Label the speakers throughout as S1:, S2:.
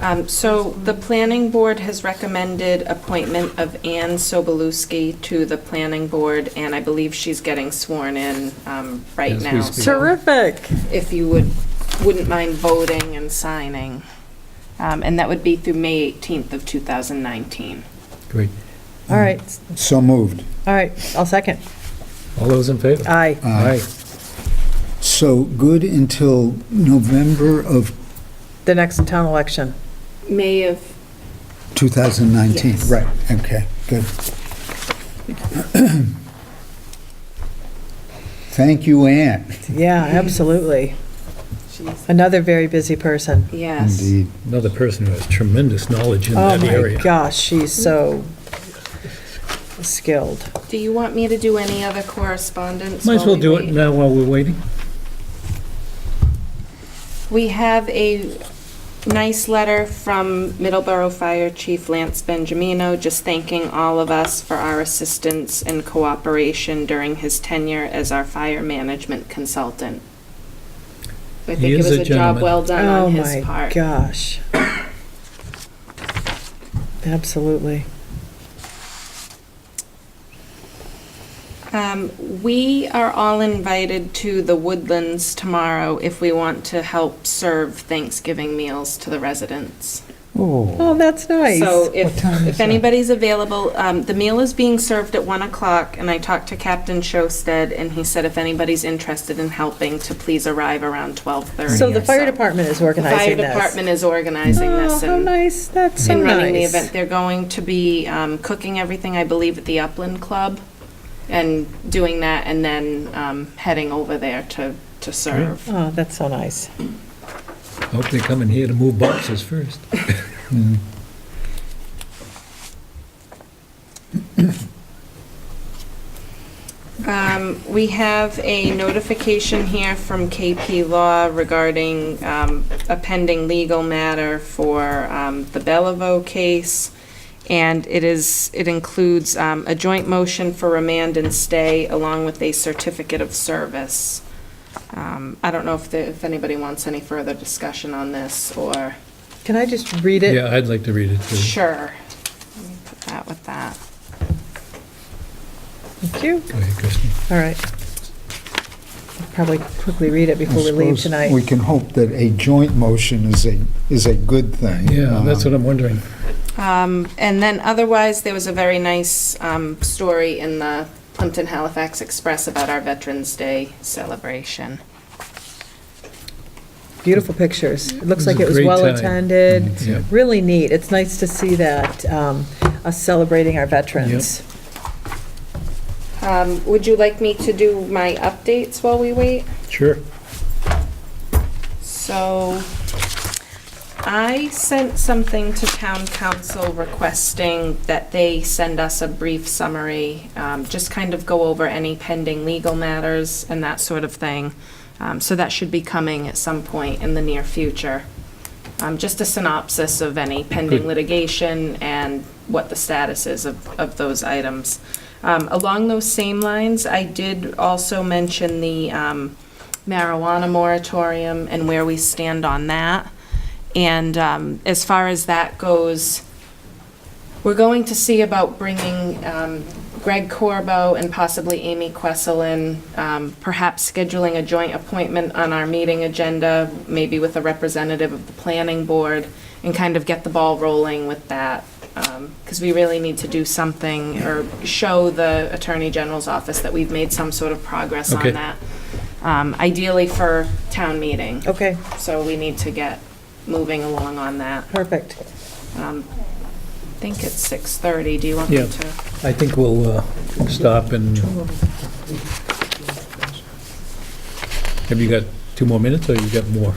S1: Um, So the planning board has recommended appointment of Anne Sobolewski to the planning board, and I believe she's getting sworn in um, right
S2: As we
S1: now.
S2: speak.
S3: Terrific.
S1: If you would, wouldn't mind voting and signing. Um, And that would be through May 18th of 2019.
S2: Great.
S3: All right,
S4: So moved.
S3: all right, I'll second.
S2: All those in favor?
S3: Aye.
S4: Aye. Uh, So good until November of
S3: The next town election.
S1: May of
S4: 2019?
S1: Yes.
S4: Right, okay, good. Thank you, Ann.
S3: Yeah, absolutely. Another very busy person.
S1: Yes.
S4: Indeed.
S2: Another person who has tremendous knowledge in
S3: Oh
S2: that
S3: my
S2: area.
S3: gosh, she's so skilled.
S1: Do you want me to do any other correspondence?
S2: Might as
S1: while
S2: well
S1: we
S2: do
S1: wait?
S2: it now while we're waiting.
S1: We have a nice letter from Middleborough Fire Chief Lance Benjamino, just thanking all of us for our assistance and cooperation during his tenure as our fire management consultant. I think
S2: He
S1: it
S2: is
S1: was
S2: a
S1: a job
S2: gentleman.
S1: well done
S3: Oh
S1: on his
S3: my
S1: part.
S3: gosh. Absolutely.
S1: Um, We are all invited to the Woodlands tomorrow if we want to help serve Thanksgiving meals to the residents.
S4: Oh,
S3: Oh, that's nice.
S1: So
S4: What
S1: if,
S4: time is
S1: if
S4: that?
S1: anybody's available, um, the meal is being served at 1 o'clock, and I talked to Captain Showstead, and he said if anybody's interested in helping, to please arrive around 12:30
S3: So the
S1: or
S3: fire department is
S1: The fire
S3: organizing this.
S1: department is organizing this
S3: Oh, how
S1: and
S3: nice, that's so
S1: and
S3: nice.
S1: running the event. They're going to be um, cooking everything, I believe, at the Upland Club, and doing that, and then um, heading over there to, to serve.
S3: Oh, that's so nice.
S2: Hope they come in here to move boxes first.
S1: Um, We have a notification here from KP Law regarding um, a pending legal matter for um, the Bellevue case, and it is, it includes um, a joint motion for remand and stay along with a certificate of service. Um, I don't know if, the- if anybody wants any further discussion on this, or,
S3: Can I just read it?
S2: Yeah, I'd like to read it too.
S1: sure. Let me Put that with that.
S3: Thank you.
S2: Go ahead, Kristen.
S3: All right. Probably quickly read it
S4: I
S3: before we leave
S4: suppose
S3: tonight.
S4: We can hope that a joint motion is a, is a good thing.
S2: Yeah, that's
S4: Um,
S2: what I'm wondering.
S1: Um, And then otherwise, there was a very nice um, story in the Plimpton Halifax Express about our Veterans Day celebration.
S3: Beautiful pictures. It looks
S2: It was
S3: like
S2: a
S3: it was
S2: great time. Mm-hmm.
S3: well-attended.
S2: Yeah.
S3: Really neat. It's nice to see that, um, us celebrating our veterans.
S1: Um, Would you like me to do my updates while we wait?
S2: Sure.
S1: So I sent something to town council requesting that they send us a brief summary, um, just kind of go over any pending legal matters and that sort of thing. Um, So that should be coming at some point in the near future. Um, Just a synopsis of any pending
S2: Good.
S1: litigation and what the status is of, of those items. Um, Along those same lines, I did also mention the um, marijuana moratorium and where we stand on that. And um, as far as that goes, we're going to see about bringing um, Greg Corbo and possibly Amy Questle in, um, perhaps scheduling a joint appointment on our meeting agenda, maybe with a representative of the planning board, and kind of get the ball rolling with that. Because we really need to do something or show the Attorney General's office that we've made some sort of progress
S2: Okay.
S1: on that. Um, Ideally for town meeting,
S3: Okay,
S1: so we need to get moving along on that.
S3: perfect.
S1: Um, I think it's 6:30. Do you want me
S2: Yeah.
S1: to?
S2: I think we'll uh, stop and... Have you got two more minutes, or you got more?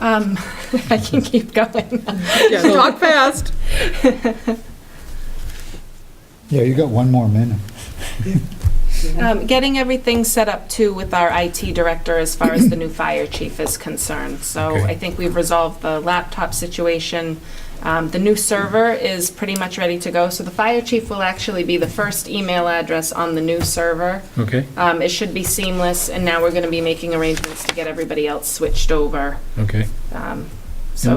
S1: Um, I can keep going.
S3: Yeah, talk fast.
S4: Yeah, you got one more minute.
S1: Um, Getting everything set up too with our IT director as far as the new fire chief is concerned. So
S2: Okay.
S1: I think we've resolved the laptop situation. Um, The new server is pretty much ready to go. So the fire chief will actually be the first email address on the new server.
S2: Okay,
S1: Um, It should be seamless, and now we're going to be making arrangements to get everybody else switched over.
S2: okay.
S1: Um, So